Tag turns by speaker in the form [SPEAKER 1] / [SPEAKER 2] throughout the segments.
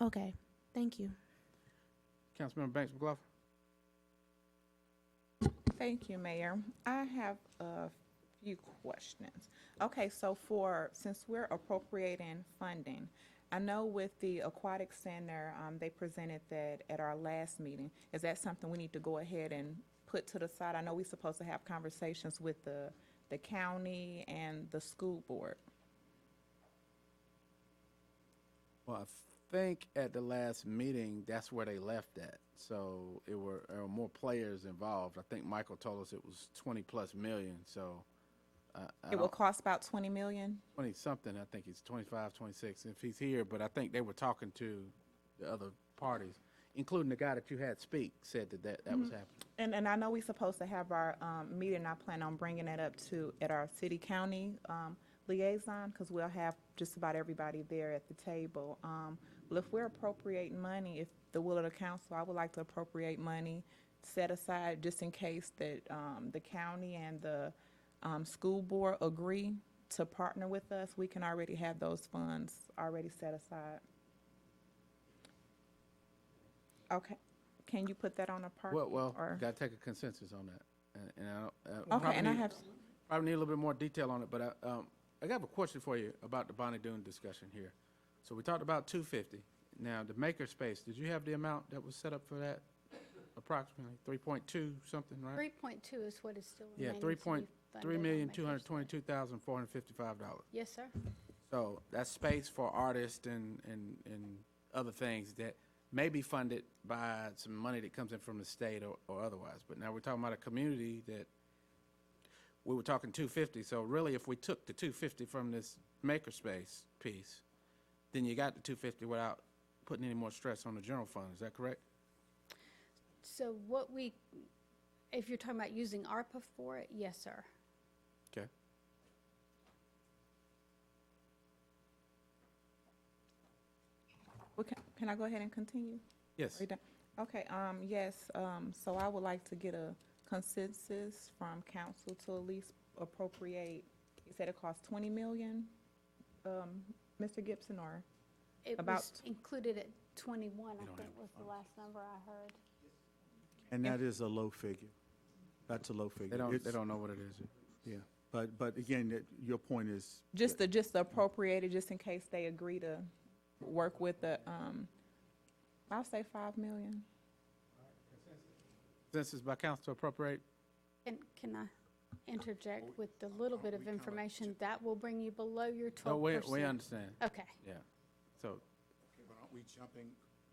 [SPEAKER 1] Okay, thank you.
[SPEAKER 2] Councilmember Banks McLaughlin.
[SPEAKER 3] Thank you, Mayor. I have a few questions. Okay, so for, since we're appropriating funding, I know with the Aquatic Center, um, they presented that at our last meeting. Is that something we need to go ahead and put to the side? I know we're supposed to have conversations with the, the county and the school board.
[SPEAKER 2] Well, I think at the last meeting, that's where they left at. So it were, there were more players involved. I think Michael told us it was twenty plus million, so. uh, I
[SPEAKER 3] It will
[SPEAKER 2] don't-
[SPEAKER 3] cost about twenty million?
[SPEAKER 2] Twenty something, I think he's 25, 26. if he's here, but I think they were talking to the other parties, including the guy that you had speak, said that that, that was
[SPEAKER 3] Mm-hmm.
[SPEAKER 2] happening.
[SPEAKER 3] And, and I know we're supposed to have our, um, meeting, I plan on bringing that up to, at our city-county, um, liaison, because we'll have just about everybody there at the table. Um, well, if we're appropriating money, if the will of the council, I would like to appropriate money set aside just in case that, um, the county and the, um, school board agree to partner with us, we can already have those funds already set aside. Okay, can you put that on a part?
[SPEAKER 2] Well, well,
[SPEAKER 3] or-
[SPEAKER 2] gotta take a consensus on that. And- And I don't. uh,
[SPEAKER 3] Okay, and I
[SPEAKER 2] probably-
[SPEAKER 3] have,
[SPEAKER 2] Probably need a little bit more detail on it, but I, um, I got a question for you about the Bonnie Doon discussion here. So we talked about two fifty. Now, the maker space, did you have the amount that was set up for that? Approximately three point two something, right?
[SPEAKER 4] Three point two is what is still
[SPEAKER 2] Yeah,
[SPEAKER 4] remaining. to
[SPEAKER 2] three
[SPEAKER 4] be
[SPEAKER 2] point, three
[SPEAKER 4] funded on
[SPEAKER 2] million,
[SPEAKER 4] that
[SPEAKER 2] two hundred
[SPEAKER 4] first line.
[SPEAKER 2] twenty-two thousand, four hundred fifty-five dollars.
[SPEAKER 4] Yes, sir.
[SPEAKER 2] So that's space for artists and, and, and other things that may be funded by some money that comes in from the state or, or otherwise. But now we're talking about a community that, we were talking two fifty, so really if we took the two fifty from this makerspace piece, then you got the two fifty without putting any more stress on the general fund, is that correct?
[SPEAKER 4] So what we, if you're talking about using ARPA for it, yes, sir.
[SPEAKER 2] Okay.
[SPEAKER 3] well, can- can I go ahead and continue?
[SPEAKER 2] Yes,
[SPEAKER 3] Are you done? Okay, um, yes, um, so I would like to get a consensus from council to at least appropriate, you said it costs twenty million, um, Mr. Gibson, or?
[SPEAKER 4] It
[SPEAKER 3] About-
[SPEAKER 4] was included at twenty-one,
[SPEAKER 2] don't
[SPEAKER 4] I think was the last number I heard.
[SPEAKER 5] And that is a low figure. That's a low figure.
[SPEAKER 2] they don't, they
[SPEAKER 5] It's-
[SPEAKER 2] don't know what it is.
[SPEAKER 5] Yeah, but, but again, that- your point is,
[SPEAKER 3] Just the, just the appropriated, just in case they agree to work with the, um, I'll say five million.
[SPEAKER 2] This is by council to appropriate,
[SPEAKER 4] And can I interject with the little
[SPEAKER 2] uh,
[SPEAKER 4] bit of information that will bring you below your
[SPEAKER 2] no,
[SPEAKER 4] twelve
[SPEAKER 2] we,
[SPEAKER 4] Oh, percent?
[SPEAKER 2] we understand,
[SPEAKER 4] Okay,
[SPEAKER 2] yeah, so.
[SPEAKER 6] But aren't we jumping?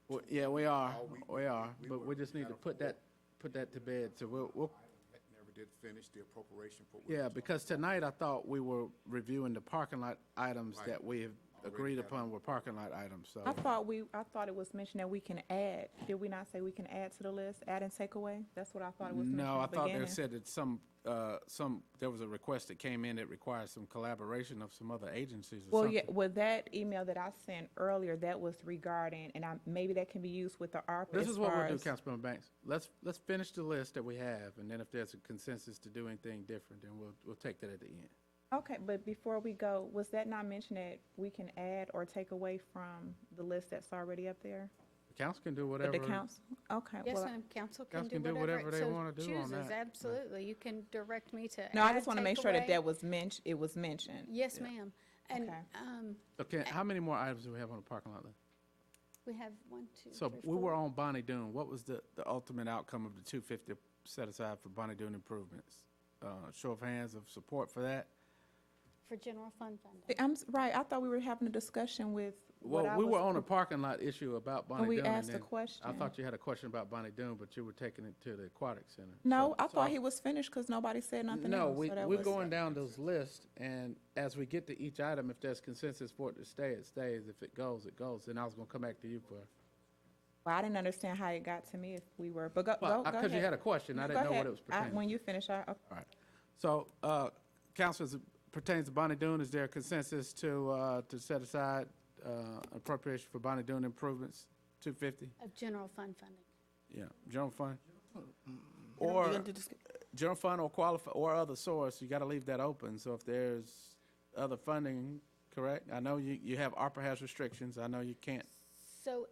[SPEAKER 2] Well, yeah, we are,
[SPEAKER 6] Oh, we-
[SPEAKER 2] we are,
[SPEAKER 6] we- we
[SPEAKER 2] but
[SPEAKER 6] were
[SPEAKER 2] we just need to
[SPEAKER 6] kind of
[SPEAKER 2] put that, put that to bed, so we'll, we'll,
[SPEAKER 6] I never did finish the appropriation for.
[SPEAKER 2] yeah, because tonight I thought we were reviewing the parking lot items that we have agreed upon were parking lot items, so.
[SPEAKER 3] I thought we, I thought it was mentioned that we can add, did we not say we can add to the list, add and take away? That's what I thought it was mentioned
[SPEAKER 2] No, I
[SPEAKER 3] at the
[SPEAKER 2] thought they
[SPEAKER 3] beginning.
[SPEAKER 2] said that some, uh, some, there was a request that came in that requires some collaboration of some other agencies or
[SPEAKER 3] Well,
[SPEAKER 2] something.
[SPEAKER 3] yeah, well, that email that I sent earlier, that was regarding, and I, maybe that can be used with the ARPA
[SPEAKER 2] This
[SPEAKER 3] as
[SPEAKER 2] is what
[SPEAKER 3] far
[SPEAKER 2] we'll do,
[SPEAKER 3] as-
[SPEAKER 2] Councilmember Banks. Let's, let's finish the list that we have, and then if there's a consensus to do anything different, then we'll, we'll take that at the end.
[SPEAKER 3] Okay, but before we go, was that not mentioned that we can add or take away from the list that's already up there?
[SPEAKER 2] The council can do
[SPEAKER 3] But
[SPEAKER 2] whatever.
[SPEAKER 3] the council, okay,
[SPEAKER 4] yes,
[SPEAKER 3] well,
[SPEAKER 4] ma'am, council can
[SPEAKER 2] Council
[SPEAKER 4] do whatever it
[SPEAKER 2] they
[SPEAKER 4] so
[SPEAKER 2] wanna do on
[SPEAKER 4] chooses,
[SPEAKER 2] that.
[SPEAKER 4] absolutely. You can direct me to
[SPEAKER 3] no, I
[SPEAKER 4] add,
[SPEAKER 3] just wanna
[SPEAKER 4] take
[SPEAKER 3] make sure that
[SPEAKER 4] away.
[SPEAKER 3] that was mentioned, it was mentioned.
[SPEAKER 4] Yes, ma'am. And,
[SPEAKER 3] Okay.
[SPEAKER 4] um,
[SPEAKER 2] Okay, how many more items do we have on the parking lot list?
[SPEAKER 4] we have one, two,
[SPEAKER 2] So
[SPEAKER 4] three,
[SPEAKER 2] we were
[SPEAKER 4] four.
[SPEAKER 2] on Bonnie Doon. What was the, the ultimate outcome of the two fifty set aside for Bonnie Doon improvements? Uh, show of hands of support for that?
[SPEAKER 4] For general fund funding.
[SPEAKER 3] I'm, s- right, I thought we were having a discussion with what
[SPEAKER 2] Well,
[SPEAKER 3] I
[SPEAKER 2] we were
[SPEAKER 3] was- Oh,
[SPEAKER 2] on a parking lot issue about Bonnie Doon.
[SPEAKER 3] we asked a
[SPEAKER 2] then I
[SPEAKER 3] question.
[SPEAKER 2] thought you had a question about Bonnie Doon, but you were taking it to the aquatic center. So-
[SPEAKER 3] No, I
[SPEAKER 2] so
[SPEAKER 3] thought he was finished, cause nobody said nothing
[SPEAKER 2] No,
[SPEAKER 3] else,
[SPEAKER 2] we,
[SPEAKER 3] so that
[SPEAKER 2] we're
[SPEAKER 3] was-
[SPEAKER 2] going down those lists, and as we get to each item, if there's consensus for it to stay, it stays. If it goes, it goes. Then I was gonna come back to you for,
[SPEAKER 3] Well, I didn't understand how it got to me if we were, but go, go, go
[SPEAKER 2] well,
[SPEAKER 3] ahead.
[SPEAKER 2] because you had a question. I
[SPEAKER 3] No,
[SPEAKER 2] didn't
[SPEAKER 3] go
[SPEAKER 2] know what
[SPEAKER 3] ahead.
[SPEAKER 2] it was
[SPEAKER 3] I-
[SPEAKER 2] pertaining to.
[SPEAKER 3] When you finish, I,
[SPEAKER 2] All right. So, uh, council, as it pertains to Bonnie Doon, is there a consensus to, uh, to set aside, uh, appropriation for Bonnie Doon improvements, two fifty?
[SPEAKER 4] Of general fund funding.
[SPEAKER 2] Yeah, general fund? Or, general fund or qualify, or other source, you gotta leave that open, so if there's other funding, correct? I know you, you have, ARPA has restrictions, I know you can't
[SPEAKER 4] So